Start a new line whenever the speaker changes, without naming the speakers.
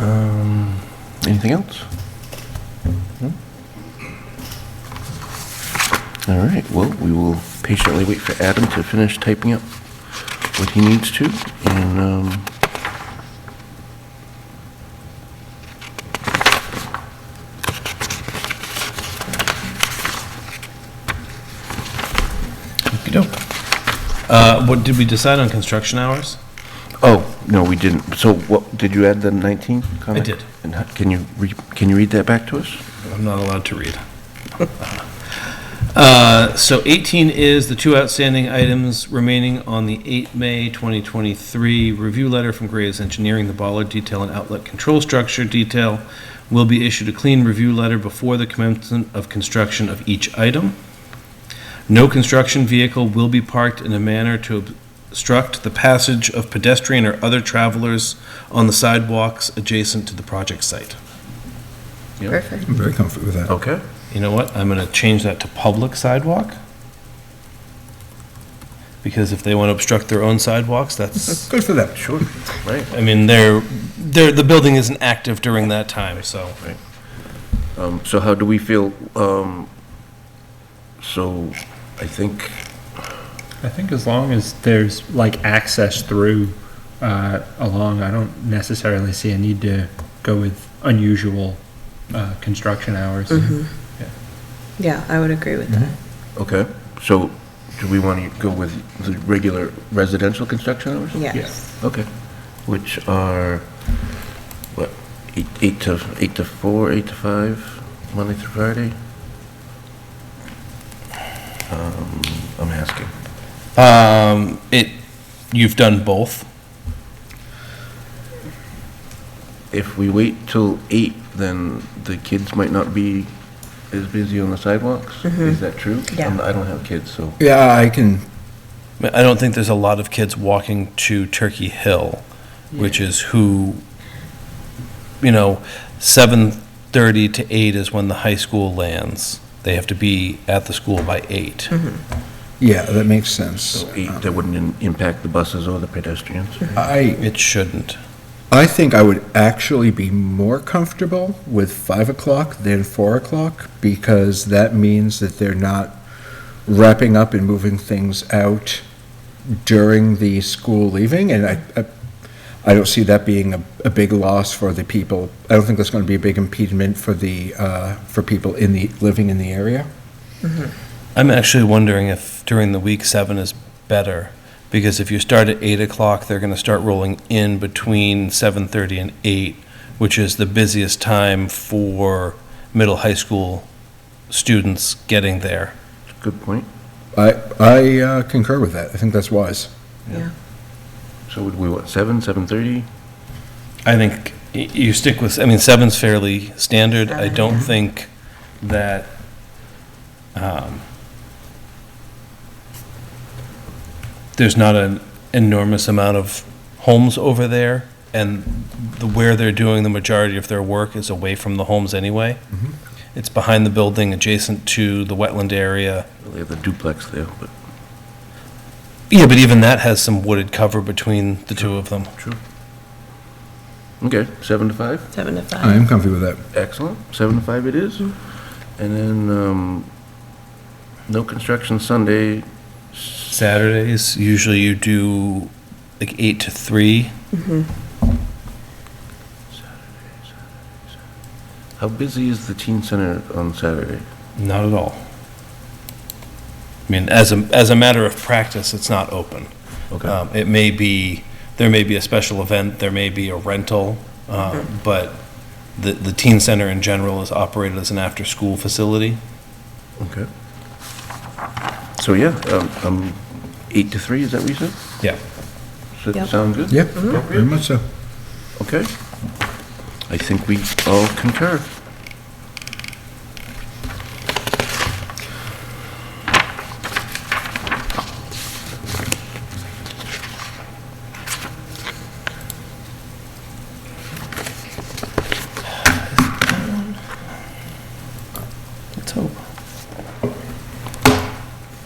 Um, Anything else? No? All right, well, we will patiently wait for Adam to finish typing up what he needs to, and, um,
Uh, what, did we decide on construction hours?
oh, no, we didn't. So what, did you add the 19 comment?
did.
And how- can you, re- can you read that back to us?
I'm not allowed to read. Uh, So 18 is the two outstanding items remaining on the 8 May 2023 review letter from Graves Engineering, the bollard detail and outlet control structure detail will be issued a clean review letter before the commencement of construction of each item. No construction vehicle will be parked in a manner to obstruct the passage of pedestrian or other travelers on the sidewalks adjacent to the project site.
Perfect.
I'm very comfortable with that.
Okay.
You know what? I'm going to change that to public sidewalk. Because if they want to obstruct their own sidewalks, that's,
Good for them. Sure.
Right.
I mean, they're, they're, the building isn't active during that time, so.
Um, So how do we feel? um, So I think,
I think as long as there's like access through uh, along, I don't necessarily see a need to go with unusual uh, construction hours.
Yeah, I would agree with that.
okay, so do we want to go with the regular residential construction hours?
Yes.
Okay, which are, what, eight eight to, eight to four, eight to five, Monday through Friday? Um, I'm asking.
Um, it, you've done both.
If we wait till eight, then the kids might not be as busy on the sidewalks? Is that true?
Yeah.
I'm- I don't have kids, so,
Yeah, I can,
I mean, I don't think there's a lot of kids walking to Turkey Hill, which is who, you know, 7:30 to 8 is when the high school lands. They have to be at the school by 8.
yeah, that makes sense. Um,
so eight, that wouldn't in- impact the buses or the pedestrians?
I,
It shouldn't.
I think I would actually be more comfortable with five o'clock than four o'clock because that means that they're not wrapping up and moving things out during the school leaving. And I, I, I don't see that being a, a big loss for the people. I don't think that's going to be a big impediment for the, uh, for people in the, living in the area.
I'm actually wondering if during the week, seven is better, because if you start at eight o'clock, they're gonna start rolling in between seven thirty and eight, which is the busiest time for middle high school students getting there.
Good point.
I, I uh, concur with that. I think that's wise.
Yeah.
So would we, what, seven, 7:30?
I think y- you stick with, I mean, seven's fairly standard. I don't think that, um, there's not an enormous amount of homes over there, and the, where they're doing the majority of their work is away from the homes anyway. It's behind the building, adjacent to the wetland area.
They have the duplex there, but
Yeah, but even that has some wooded cover between the two of them.
true. Okay, seven to five,
Seven to
I
five.
am comfy with that.
excellent, seven to five it is. And then, um, no construction Sunday,
Saturdays, usually you do like eight to three.
how busy is the teen center on Saturday?
Not at all. I mean, as a, as a matter of practice, it's not open.
Okay,
Um, It may be, there may be a special event, there may be a rental, uh, but the, the teen center in general is operated as an after-school facility.
okay. So, yeah, um, um, eight to three, is that what you said?
Yeah.
Does that
Yep.
sound good?
Yeah, very much so.
Okay. I think we all concur.